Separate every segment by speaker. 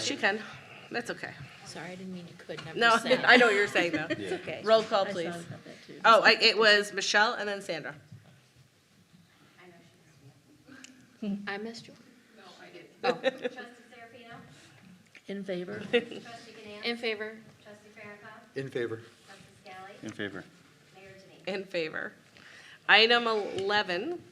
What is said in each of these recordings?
Speaker 1: She can. That's okay.
Speaker 2: Sorry, I didn't mean you couldn't. I'm
Speaker 1: No,
Speaker 2: just saying.
Speaker 1: I know what you're saying though.
Speaker 2: It's okay.
Speaker 1: Roll call,
Speaker 2: I
Speaker 1: please.
Speaker 2: thought about that too.
Speaker 1: Oh, I, it was Michelle and then Sandra.
Speaker 2: I missed you. Oh.
Speaker 3: Trustee Serafino?
Speaker 2: In favor?
Speaker 3: Trustee Ganance?
Speaker 2: In favor.
Speaker 3: Trustee Farrakhan?
Speaker 4: In favor.
Speaker 3: Trustee Scally?
Speaker 5: In favor.
Speaker 3: Mayor Denine?
Speaker 1: In favor. Item eleven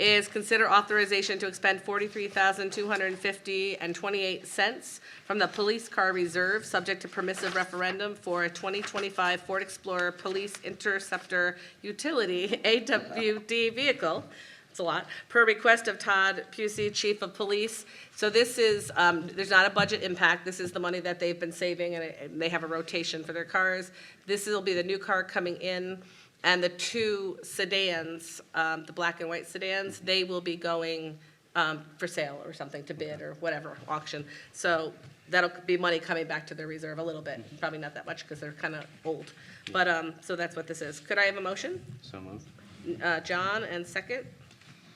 Speaker 1: is consider authorization to expend forty-three thousand, two hundred and fifty and twenty-eight cents from the police car reserve, subject to permissive referendum for a twenty twenty-five Ford Explorer Police Interceptor Utility AWD vehicle. It's a lot, per request of Todd Pusey, Chief of Police. So this is, um, there's not a budget impact. This is the money that they've been saving and it- and they have a rotation for their cars. This will be the new car coming in. And the two sedans, um, the black and white sedans, they will be going, um, for sale or something to bid or whatever, auction. So that'll be money coming back to their reserve a little bit, probably not that much because they're kind of old. But, um, so that's what this is. Could I have a motion?
Speaker 5: So moved.
Speaker 1: Uh, John and second,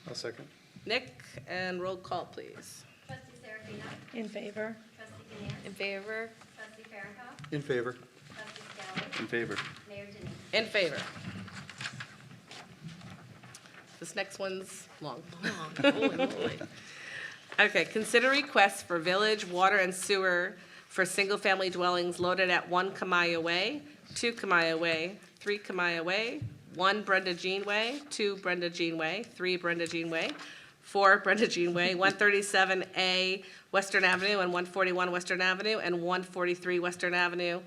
Speaker 4: I'll second.
Speaker 1: Nick, and roll call, please.
Speaker 3: Trustee Serafino?
Speaker 2: In favor.
Speaker 3: Trustee Ganance?
Speaker 2: In favor.
Speaker 3: Trustee Farrakhan?
Speaker 4: In favor.
Speaker 3: Trustee Scally?
Speaker 5: In favor.
Speaker 3: Mayor Denine?
Speaker 1: In favor. This next one's long.
Speaker 2: Holy moly.
Speaker 1: Okay, consider requests for village water and sewer for single-family dwellings loaded at one Kamaya Way, two Kamaya Way, three Kamaya Way, one Brenda Jean Way, two Brenda Jean Way, three Brenda Jean Way, four Brenda Jean Way, one thirty-seven A Western Avenue and one forty-one Western Avenue and one forty-three Western Avenue,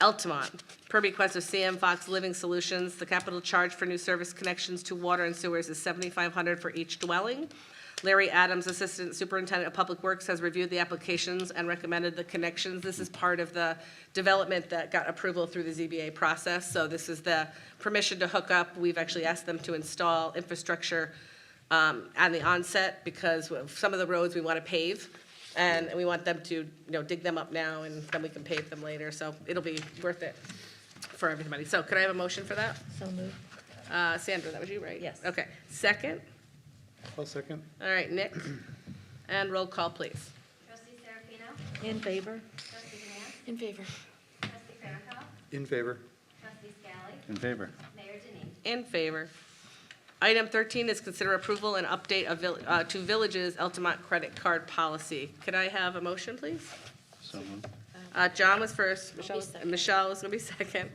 Speaker 1: Altamont, per request of CM Fox Living Solutions, the capital charge for new service connections to water and sewers is seventy-five hundred for each dwelling. Larry Adams, Assistant Superintendent of Public Works, has reviewed the applications and recommended the connections. This is part of the development that got approval through the ZBA process, so this is the permission to hook up. We've actually asked them to install infrastructure um, on the onset because of some of the roads we want to pave, and we want them to, you know, dig them up now, and then we can pave them later, so it'll be worth it for everybody. So could I have a motion for that?
Speaker 2: So moved.
Speaker 1: Uh, Sandra, that was you, right?
Speaker 2: Yes.
Speaker 1: Okay. Second?
Speaker 4: I'll second.
Speaker 1: All right, Nick? And roll call, please.
Speaker 3: Trustee Serafino?
Speaker 2: In favor.
Speaker 3: Trustee Ganance?
Speaker 2: In favor.
Speaker 3: Trustee Farrakhan?
Speaker 4: In favor.
Speaker 3: Trustee Scally?
Speaker 5: In favor.
Speaker 3: Mayor Denine?
Speaker 1: In favor. Item 13 is consider approval and update of, vill- uh, to Village's Altamont credit card policy. Could I have a motion, please?
Speaker 5: So moved.
Speaker 1: Uh, John was first, Michelle, was-
Speaker 2: second.
Speaker 1: Michelle is going to be second.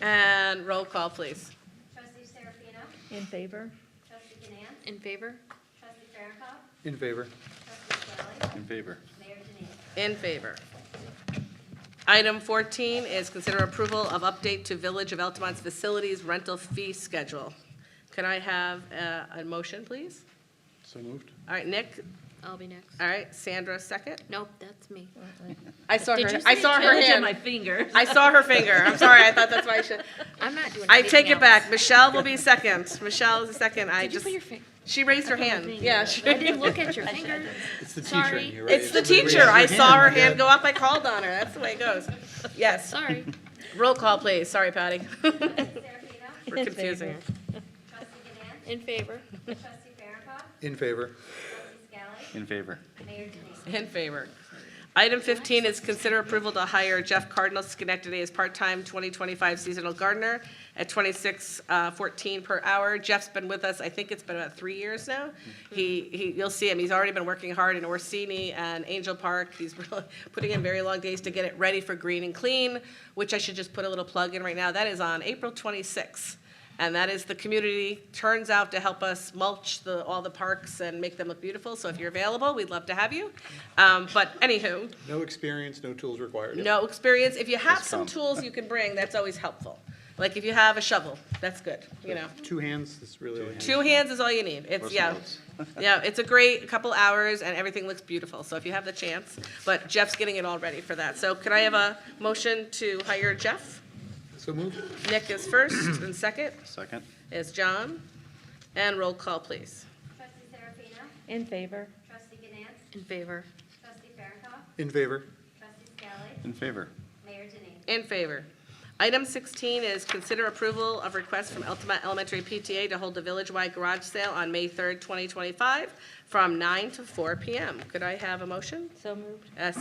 Speaker 1: And roll call, please.
Speaker 3: Trustee Serafino?
Speaker 2: In favor.
Speaker 3: Trustee Ganance?
Speaker 2: In favor.
Speaker 3: Trustee Farrakhan?
Speaker 4: In favor.
Speaker 3: Trustee Scally?
Speaker 5: In favor.
Speaker 3: Mayor Denine?
Speaker 1: In favor. Item 14 is consider approval of update to Village of Altamont's facilities rental fee schedule. Could I have uh, a motion, please?
Speaker 4: So moved.
Speaker 1: All right, Nick,
Speaker 2: I'll be next.
Speaker 1: all right, Sandra second.
Speaker 2: Nope, that's me.
Speaker 1: I saw
Speaker 2: Did
Speaker 1: her,
Speaker 2: you
Speaker 1: I
Speaker 2: say
Speaker 1: saw her
Speaker 2: village in
Speaker 1: hand.
Speaker 2: my finger?
Speaker 1: I saw her finger. I'm sorry. I thought that's why I should.
Speaker 2: I'm not doing anything
Speaker 1: I take it
Speaker 2: else.
Speaker 1: back. Michelle will be second. Michelle is the second. I
Speaker 2: Did you
Speaker 1: just,
Speaker 2: put your finger?
Speaker 1: she raised her hand. Yeah. she-
Speaker 2: I didn't look at your finger.
Speaker 4: It's the teacher
Speaker 2: Sorry.
Speaker 4: in you, right?
Speaker 1: It's the teacher. I saw her hand go up. I called on her. That's the way it goes. Yes.
Speaker 2: Sorry.
Speaker 1: Roll call, please. Sorry, Patty.
Speaker 3: Trustee Serafino?
Speaker 1: We're confusing. her.
Speaker 3: Trustee Ganance?
Speaker 2: In favor.
Speaker 3: Trustee Farrakhan?
Speaker 4: In favor.
Speaker 3: Trustee Scally?
Speaker 5: In favor.
Speaker 3: Mayor Denine?
Speaker 1: In favor. Item 15 is consider approval to hire Jeff Cardinal Schenectady as part-time 2025 seasonal gardener at 26.14 per hour. Jeff's been with us, I think it's been about three years now. He, he, you'll see him, he's already been working hard in Orsini and Angel Park. He's really putting in very long days to get it ready for green and clean, which I should just put a little plug in right now. That is on April 26th. And that is the community turns out to help us mulch the, all the parks and make them look beautiful. So if you're available, we'd love to have you. Um, but anywho,
Speaker 4: No experience, no tools required.
Speaker 1: no experience. If you have
Speaker 5: Just
Speaker 1: some
Speaker 5: come.
Speaker 1: tools you can bring, that's always helpful. Like if you have a shovel, that's good, you know.
Speaker 4: Two hands, that's really all you need.
Speaker 1: Two hands is all you need. It's,
Speaker 5: Russell
Speaker 1: yeah.
Speaker 5: Woods.
Speaker 1: Yeah, it's a great couple hours and everything looks beautiful. So if you have the chance, but Jeff's getting it all ready for that. So could I have a motion to hire Jeff?
Speaker 4: So moved.
Speaker 1: Nick is first and second
Speaker 5: Second.
Speaker 1: is John. And roll call, please.
Speaker 3: Trustee Serafino?
Speaker 2: In favor.
Speaker 3: Trustee Ganance?
Speaker 2: In favor.
Speaker 3: Trustee Farrakhan?
Speaker 4: In favor.
Speaker 3: Trustee Scally?
Speaker 5: In favor.
Speaker 3: Mayor Denine?
Speaker 1: In favor. Item 16 is consider approval of request from Altamont Elementary PTA to hold a village-wide garage sale on May 3rd, 2025, from 9 to 4 p.m. Could I have a motion?
Speaker 2: So moved.
Speaker 1: A